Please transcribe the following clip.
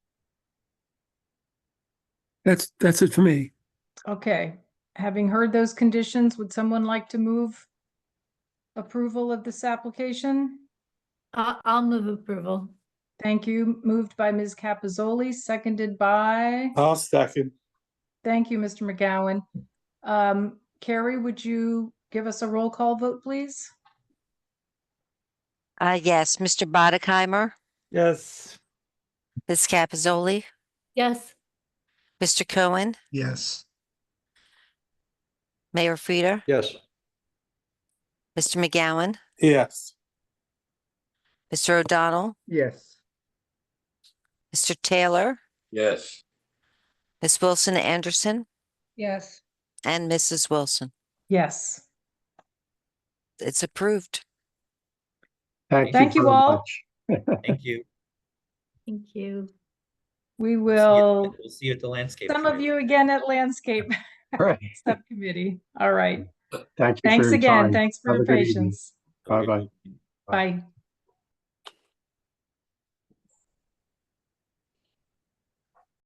That's, that's it for me. Okay, having heard those conditions, would someone like to move approval of this application? I- I'll move approval. Thank you. Moved by Ms. Capizoli, seconded by, Uh. I'll second. thank you, Mr. McGowan. Um, Carrie, would you give us a roll call vote, please? Uh, yes, Mr. Bodekheimer, Yes. Ms. Capizoli, Yes, Mr. Cohen, Yes, Mayor Frida, Yes. Mr. McGowan, Yes. Mr. O'Donnell, yes, Mr. Taylor, Yes. Ms. Wilson Anderson, Yes. and Mrs. Wilson. Yes. It's approved. thank you. Thank you very all. much. Thank you. thank you. We See you- will, We'll see you at the landscape. some of fair. you again at Landscape Right, Subcommittee. All right. thank you. for Thanks your again. time. Thanks for Have your a good evening. patience. Bye-bye. Bye.